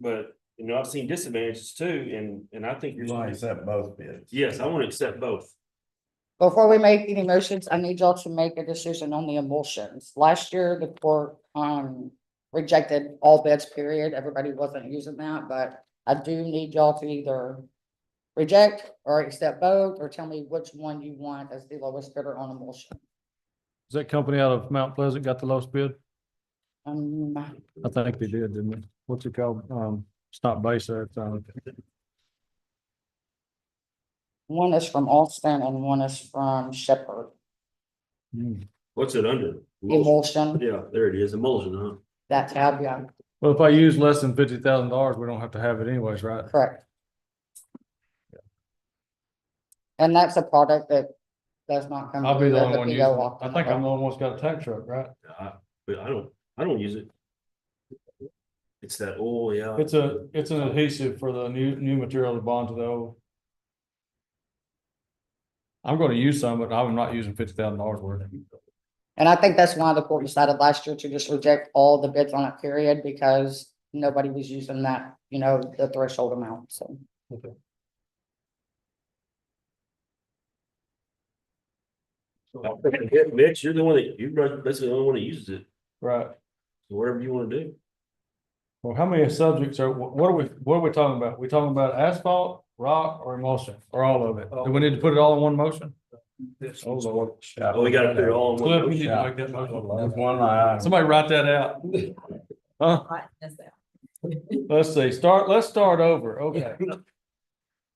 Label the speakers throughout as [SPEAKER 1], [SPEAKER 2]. [SPEAKER 1] But, you know, I've seen disadvantages too, and, and I think
[SPEAKER 2] You
[SPEAKER 1] you're.
[SPEAKER 2] want to accept both bids?
[SPEAKER 1] Yes, I want to accept both.
[SPEAKER 3] Before we make any motions, I need y'all to make a decision on the emulsions. Last year, the court, um, rejected all bids, period. Everybody wasn't using that, but I do need y'all to either reject or accept both, or tell me which one you want as the lowest bidder on emulsion.
[SPEAKER 4] Is that company out of Mount Pleasant got the lowest bid?
[SPEAKER 3] Um,
[SPEAKER 4] I think they did, didn't they? What's it called? Um, it's not base there. it's, um,
[SPEAKER 3] one is from Austin and one is from Shepherd.
[SPEAKER 4] hmm.
[SPEAKER 1] What's it under? Emulsion.
[SPEAKER 3] Emulsion,
[SPEAKER 1] Yeah, there it is, emulsion, huh?
[SPEAKER 3] that tab, yeah,
[SPEAKER 4] Well, if I use less than fifty thousand dollars, we don't have to have it anyways, right?
[SPEAKER 3] correct. And that's a product that does not come.
[SPEAKER 4] I'll be the
[SPEAKER 3] with
[SPEAKER 4] only one using
[SPEAKER 3] PO
[SPEAKER 4] it.
[SPEAKER 3] off
[SPEAKER 4] I
[SPEAKER 3] the
[SPEAKER 4] think I'm
[SPEAKER 3] hook.
[SPEAKER 4] the only one's got a tank truck, right?
[SPEAKER 1] I, but I don't, I don't use it. It's that oil, yeah.
[SPEAKER 4] It's a, it's an adhesive for the new, new material to bond to the old. I'm gonna use some, but I'm not using fifty thousand dollars worth.
[SPEAKER 3] And I think that's why the court decided last year to just reject all the bids on it period because nobody was using that, you know, the threshold amount, so.
[SPEAKER 1] Yeah, Mitch, you're the one that, you're basically the only one that uses it,
[SPEAKER 4] Right.
[SPEAKER 1] so whatever you want to do.
[SPEAKER 4] Well, how many subjects are, wh- what are we, what are we talking about? We talking about asphalt, rock or emulsion, or all of it? Do we need to put it all in one motion?
[SPEAKER 2] Oh, Lord.
[SPEAKER 1] Oh, we gotta put it all in one.
[SPEAKER 4] Cliff, you need
[SPEAKER 1] motion.
[SPEAKER 4] to make that motion.
[SPEAKER 2] There's one line.
[SPEAKER 4] Somebody write that out. Huh? Let's see, start, let's start over. Okay,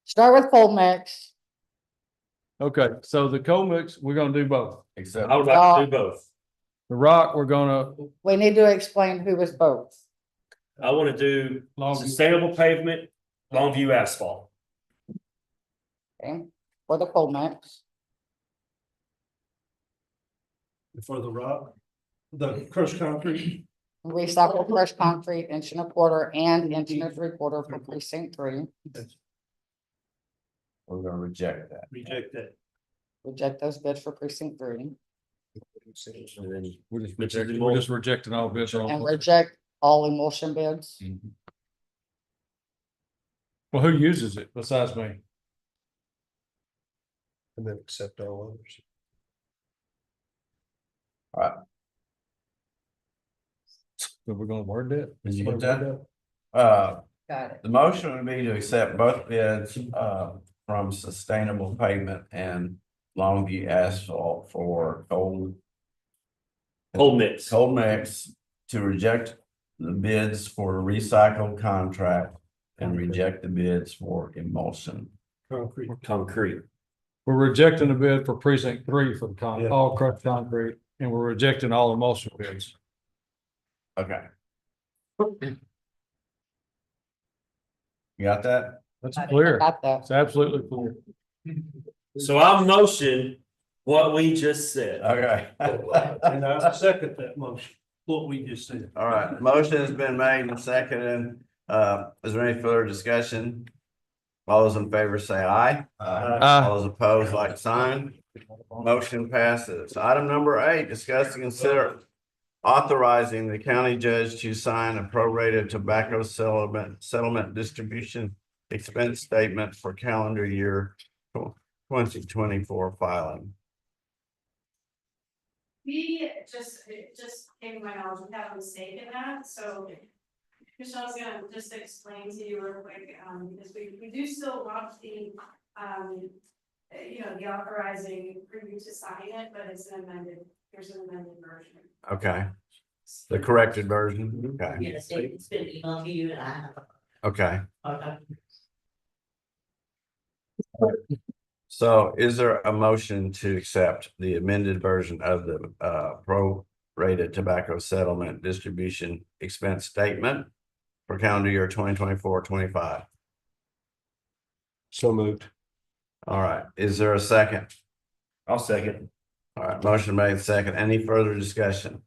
[SPEAKER 3] Start with cold mix.
[SPEAKER 4] okay. So the coal mix, we're gonna do both.
[SPEAKER 2] Except.
[SPEAKER 1] I would like to do both.
[SPEAKER 4] The rock, we're gonna.
[SPEAKER 3] We need to explain who was both.
[SPEAKER 1] I want to do sustainable pavement, Longview asphalt.
[SPEAKER 3] Okay, for the cold mix.
[SPEAKER 5] for the rock, the crushed concrete.
[SPEAKER 3] Recycle fresh concrete, inch and a quarter and inch and a three quarter for precinct three.
[SPEAKER 2] We're gonna reject that.
[SPEAKER 5] Reject that.
[SPEAKER 3] Reject those bids for precinct three
[SPEAKER 1] And then
[SPEAKER 4] We're just
[SPEAKER 1] Which is
[SPEAKER 4] rejecting,
[SPEAKER 1] the
[SPEAKER 4] we're just rejecting all bids. on-
[SPEAKER 3] and reject all emulsion bids.
[SPEAKER 4] Mm. Well, who uses it besides me?
[SPEAKER 5] And then accept all others.
[SPEAKER 4] So we're gonna word it.
[SPEAKER 2] Did you get that? Uh,
[SPEAKER 3] Got it.
[SPEAKER 2] the motion would be to accept both bids, uh, from Sustainable Pavement and Longview Asphalt for coal,
[SPEAKER 1] Whole mix.
[SPEAKER 2] coal mix to reject the bids for recycled contract and reject the bids for emulsion.
[SPEAKER 5] Concrete.
[SPEAKER 1] Concrete.
[SPEAKER 4] We're rejecting the bid for precinct three for the con,
[SPEAKER 5] Yeah.
[SPEAKER 4] all crushed concrete, and we're rejecting all emulsion bids.
[SPEAKER 2] Okay. You got that?
[SPEAKER 4] That's clear.
[SPEAKER 3] Got that.
[SPEAKER 4] It's absolutely clear.
[SPEAKER 1] So I'll motion what we just said.
[SPEAKER 2] Okay.
[SPEAKER 5] And I second that motion, what we just said.
[SPEAKER 2] All right, motion has been made and seconded. Uh, is there any further discussion? All those in favor say aye.
[SPEAKER 4] Aye.
[SPEAKER 2] All those opposed, like sign. Motion passes. Item number eight, discuss and consider authorizing the county judge to sign a prorated tobacco settlement, settlement distribution expense statement for calendar year twenty twenty-four filing.
[SPEAKER 6] We just, it just came to my knowledge, we have a mistake in that, so. Michelle's gonna just explain to you real quick, um, because we, we do still want the, um. uh, You know, the authorizing for you to sign it, but it's an amended, here's an amended version.
[SPEAKER 2] Okay, the corrected version. Okay,
[SPEAKER 7] Yes, it's been emailed to you and I have,
[SPEAKER 2] okay.
[SPEAKER 7] uh,
[SPEAKER 2] So is there a motion to accept the amended version of the uh prorated tobacco settlement distribution expense statement for calendar year 2024 25?
[SPEAKER 5] So moved.
[SPEAKER 2] All right, is there a second?
[SPEAKER 1] I'll second.
[SPEAKER 2] All right, motion made second. Any further discussion?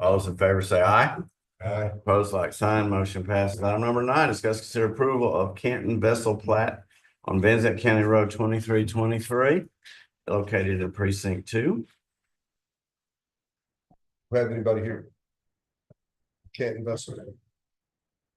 [SPEAKER 2] All those in favor say aye.
[SPEAKER 5] Aye.
[SPEAKER 2] Opposed, like sign, motion passes. Item number nine, discuss consider approval of Canton Vessel Plat on Van Zant County Road twenty-three twenty-three, located in precinct two.
[SPEAKER 5] Have anybody here? Can't invest in it.